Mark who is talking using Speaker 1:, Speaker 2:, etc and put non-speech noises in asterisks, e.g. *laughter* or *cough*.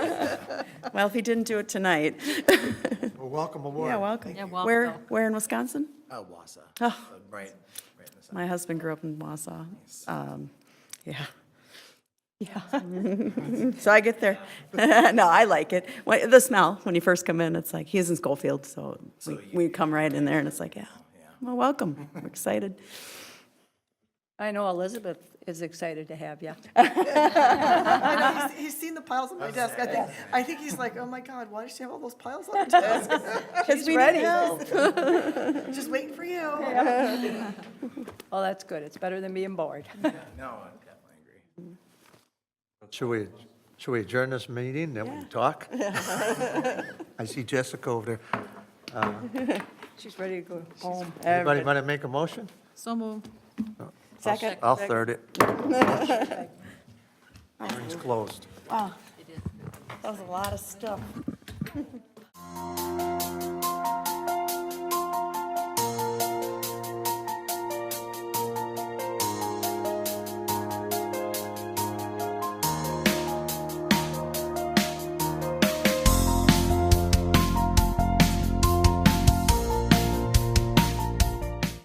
Speaker 1: Well, if he didn't do it tonight,
Speaker 2: Well, welcome aboard.
Speaker 1: yeah, welcome.
Speaker 3: Yeah, welcome.
Speaker 1: Where, where in Wisconsin?
Speaker 4: Oh, Wausau.
Speaker 1: Oh.
Speaker 4: Right, right in the center.
Speaker 1: My husband grew up in Wausau. Um, Yeah. Yeah. *laughs* So I get there. No, I like it. Wh- The smell, when you first come in, it's like, he's in Schofield, so we- we come right in there and it's like, yeah. Well, welcome. We're excited.
Speaker 5: I know Elizabeth is excited to have you.
Speaker 6: I know, he's, he's seen the piles on my desk. I think, I think he's like, oh my God, why does she have all those piles on her *laughs* desk?
Speaker 1: Because we
Speaker 5: Oh, ready.
Speaker 6: *laughs* Just waiting for you.
Speaker 5: Well, Oh, that's good. It's better than being bored.
Speaker 4: No, I definitely agree.
Speaker 2: Should we, should we adjourn this meeting, then we can
Speaker 1: *laughs*
Speaker 2: talk? I see Jessica over there.
Speaker 5: She's ready to go home.
Speaker 2: Anybody want to make a motion?
Speaker 3: So moved.
Speaker 2: I'll-
Speaker 1: Second.
Speaker 2: I'll third it. Hearing's closed.
Speaker 1: That was a lot of stuff.